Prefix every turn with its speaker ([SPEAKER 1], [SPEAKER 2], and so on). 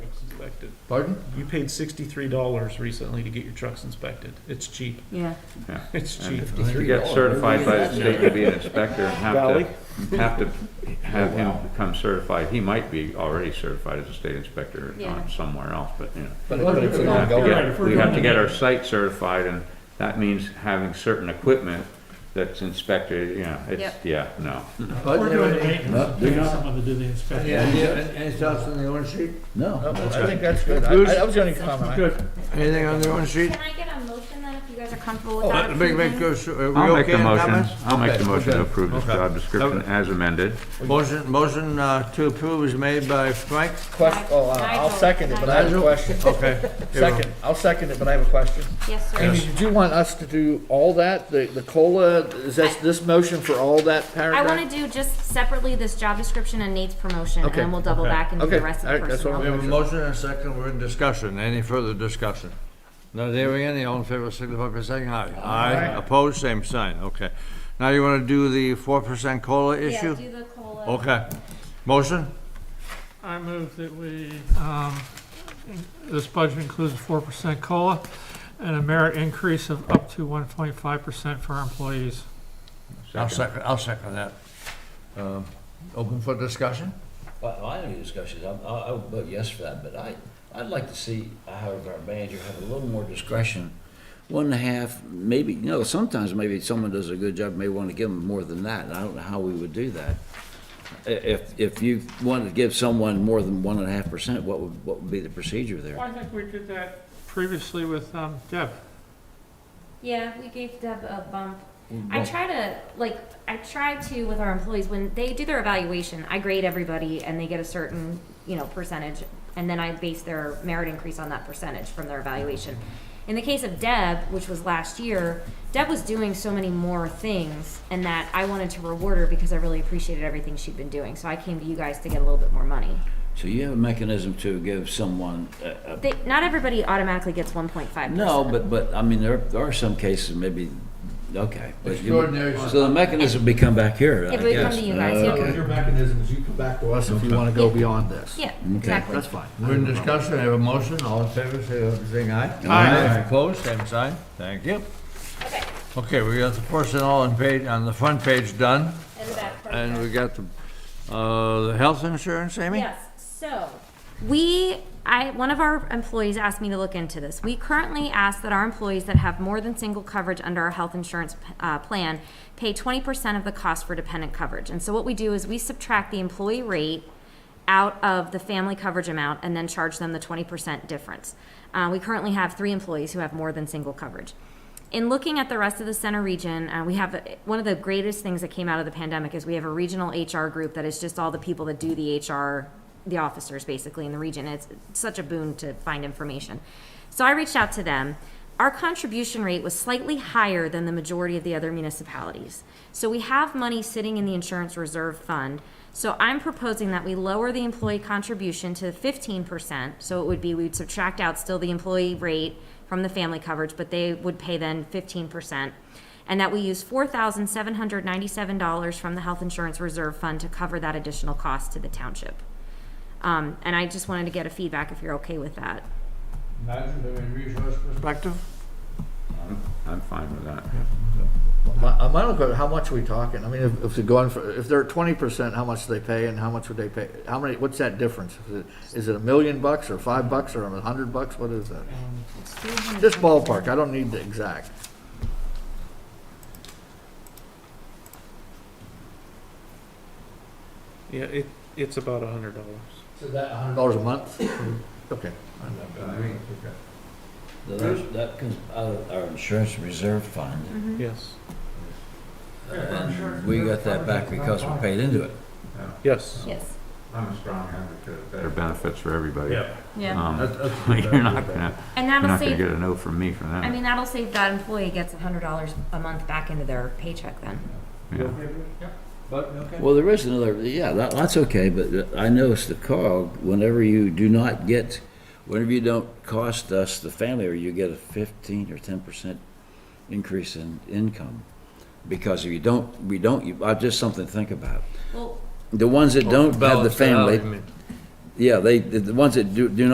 [SPEAKER 1] inspected.
[SPEAKER 2] Pardon?
[SPEAKER 1] You paid sixty-three dollars recently to get your trucks inspected. It's cheap.
[SPEAKER 3] Yeah,
[SPEAKER 1] It's cheap.
[SPEAKER 2] And
[SPEAKER 4] To get certified by the state to be an inspector and
[SPEAKER 1] Valley?
[SPEAKER 4] have to, have to have him become certified. He might be already certified as a state inspector
[SPEAKER 3] Yeah.
[SPEAKER 4] on somewhere else, but you know.
[SPEAKER 2] But but it's an
[SPEAKER 4] We have to
[SPEAKER 2] ongoing,
[SPEAKER 1] Right, if
[SPEAKER 4] get,
[SPEAKER 1] we're
[SPEAKER 4] we have
[SPEAKER 1] doing
[SPEAKER 4] to get our site certified and that means having certain equipment that's inspected, you know, it's, yeah, no.
[SPEAKER 2] pardon?
[SPEAKER 5] We're doing the
[SPEAKER 2] everything?
[SPEAKER 5] maintenance,
[SPEAKER 2] No,
[SPEAKER 5] they're not someone that did the inspection.
[SPEAKER 6] Yeah, yeah, and, and it's also on the orange sheet?
[SPEAKER 2] No,
[SPEAKER 6] That's
[SPEAKER 2] I
[SPEAKER 6] good.
[SPEAKER 2] think that's good. I- That was the only comment.
[SPEAKER 6] Good. Anything on the orange sheet?
[SPEAKER 3] can I get a motion then if you guys are comfortable with that?
[SPEAKER 6] Let me make
[SPEAKER 3] approval?
[SPEAKER 6] those, are we
[SPEAKER 4] I'll make
[SPEAKER 6] okay
[SPEAKER 4] the
[SPEAKER 6] on
[SPEAKER 4] motion,
[SPEAKER 6] comments?
[SPEAKER 4] I'll make the
[SPEAKER 2] Okay,
[SPEAKER 4] motion to
[SPEAKER 2] okay.
[SPEAKER 4] approve this
[SPEAKER 6] Okay.
[SPEAKER 4] job description as amended.
[SPEAKER 6] Motion, motion, uh, to approve is made by Frank,
[SPEAKER 2] Question, oh, uh, I'll second it, but I have a
[SPEAKER 6] Nigel?
[SPEAKER 2] question.
[SPEAKER 6] okay.
[SPEAKER 2] Second, I'll second it, but I have a question.
[SPEAKER 3] Yes,
[SPEAKER 2] Amy,
[SPEAKER 3] sir.
[SPEAKER 2] did you want us to do all that, the, the COLA, is that this motion for all that
[SPEAKER 3] I
[SPEAKER 2] paragraph?
[SPEAKER 3] wanna do just separately this job description and Nate's promotion, and
[SPEAKER 2] Okay.
[SPEAKER 3] then we'll double back and do
[SPEAKER 2] Okay.
[SPEAKER 3] the rest of the
[SPEAKER 2] Alright, that's what
[SPEAKER 6] We
[SPEAKER 3] personnel.
[SPEAKER 6] have a motion and a second, we're in discussion, any further discussion? Not hearing any, all in favor, signify by saying aye. Aye, opposed, same sign, okay. Now you wanna do the four percent COLA
[SPEAKER 3] Yeah,
[SPEAKER 6] issue?
[SPEAKER 3] do the COLA.
[SPEAKER 6] Okay, motion?
[SPEAKER 5] I move that we, um, this budget includes a four percent COLA and a merit increase of up to one point five percent for our employees.
[SPEAKER 6] I'll second, I'll second that. Um, Open for discussion?
[SPEAKER 7] Well, I have any discussions, I'm- I, I would vote yes for that, but I, I'd like to see, however, our manager have a little more discretion. One and a half, maybe, you know, sometimes maybe someone does a good job, may want to give them more than that, and I don't know how we would do that. I- If, if you wanted to give someone more than one and a half percent, what would, what would be the procedure there?
[SPEAKER 5] I think we did that previously with, um, Deb.
[SPEAKER 3] Yeah, we gave Deb a bump.
[SPEAKER 7] Mm,
[SPEAKER 3] I try to, like, I try to with our employees, when they do their evaluation, I grade everybody and they get a certain, you know, percentage. And then I base their merit increase on that percentage from their evaluation. In the case of Deb, which was last year, Deb was doing so many more things and that I wanted to reward her because I really appreciated everything she'd been doing. So I came to you guys to get a little bit more money.
[SPEAKER 7] So you have a mechanism to give someone a, a
[SPEAKER 3] They, not everybody automatically gets one point five percent.
[SPEAKER 7] No, but, but, I mean, there there are some cases maybe, okay. but you-
[SPEAKER 6] Extraordinary.
[SPEAKER 7] So the mechanism would come back here, I
[SPEAKER 3] It would come
[SPEAKER 7] guess.
[SPEAKER 3] to you guys, yeah.
[SPEAKER 7] Okay.
[SPEAKER 6] Your
[SPEAKER 2] mechanism is you come back to us if you wanna go beyond this.
[SPEAKER 3] Yeah, exactly.
[SPEAKER 2] fine.
[SPEAKER 6] We're in discussion, I have a motion, all in favor, say, saying aye.
[SPEAKER 5] Aye.
[SPEAKER 6] Opposed, same sign, thank you.
[SPEAKER 3] Okay,
[SPEAKER 6] Okay, we got the personnel on page, on the front page done,
[SPEAKER 3] and the back part.
[SPEAKER 6] and we got the, uh, the health insurance, Amy?
[SPEAKER 3] Yes, so, we, I, one of our employees asked me to look into this. We currently ask that our employees that have more than single coverage under our health insurance, uh, plan pay twenty percent of the cost for dependent coverage. And so what we do is we subtract the employee rate out of the family coverage amount and then charge them the twenty percent difference. Uh, we currently have three employees who have more than single coverage. In looking at the rest of the center region, uh, we have, one of the greatest things that came out of the pandemic is we have a regional HR group that is just all the people that do the HR, the officers basically in the region. It's such a boon to find information. So I reached out to them. Our contribution rate was slightly higher than the majority of the other municipalities. So we have money sitting in the insurance reserve fund. So I'm proposing that we lower the employee contribution to fifteen percent. So it would be, we would subtract out still the employee rate from the family coverage, but they would pay then fifteen percent. And that we use four thousand seven hundred ninety-seven dollars from the health insurance reserve fund to cover that additional cost to the township. Um, and I just wanted to get a feedback if you're okay with that.
[SPEAKER 6] Nigel, do we resource perspective?
[SPEAKER 4] I'm- I'm fine with that.
[SPEAKER 2] My, uh, my only question, how much are we talking? I mean, if, if they're going for, if they're twenty percent, how much do they pay and how much would they pay? How many, what's that difference? Is it- Is it a million bucks or five bucks or a hundred bucks? What is that? Just ballpark, I don't need the exact.
[SPEAKER 1] Yeah, it, it's about a hundred dollars.
[SPEAKER 2] So that a hundred? Dollars a month? Okay.
[SPEAKER 7] That that comes out of our insurance reserve fund.
[SPEAKER 1] Yes,
[SPEAKER 7] And we got that back because we paid into it.
[SPEAKER 1] yes.
[SPEAKER 3] Yes,
[SPEAKER 4] I'm a strong advocate of better. benefits for everybody.
[SPEAKER 3] yeah.
[SPEAKER 4] Um,
[SPEAKER 6] That- that's-
[SPEAKER 4] You're not gonna,
[SPEAKER 3] And
[SPEAKER 4] you're
[SPEAKER 3] that'll
[SPEAKER 4] not gonna
[SPEAKER 3] save,
[SPEAKER 4] get a no from me for
[SPEAKER 3] I
[SPEAKER 4] that.
[SPEAKER 3] mean, that'll save that employee gets a hundred dollars a month back into their paycheck then.
[SPEAKER 4] Yeah.
[SPEAKER 6] But, okay.
[SPEAKER 7] Well, there is another, yeah, that, that's okay, but uh, I noticed the cog, whenever you do not get, whenever you don't cost us the family, or you get a fifteen or ten percent increase in income. Because if you don't, we don't, you, uh, just something to think about.
[SPEAKER 3] Well,
[SPEAKER 7] The ones that don't have the
[SPEAKER 6] Balance it out,
[SPEAKER 7] family,
[SPEAKER 6] I mean.
[SPEAKER 7] Yeah, they, the the ones that do, do not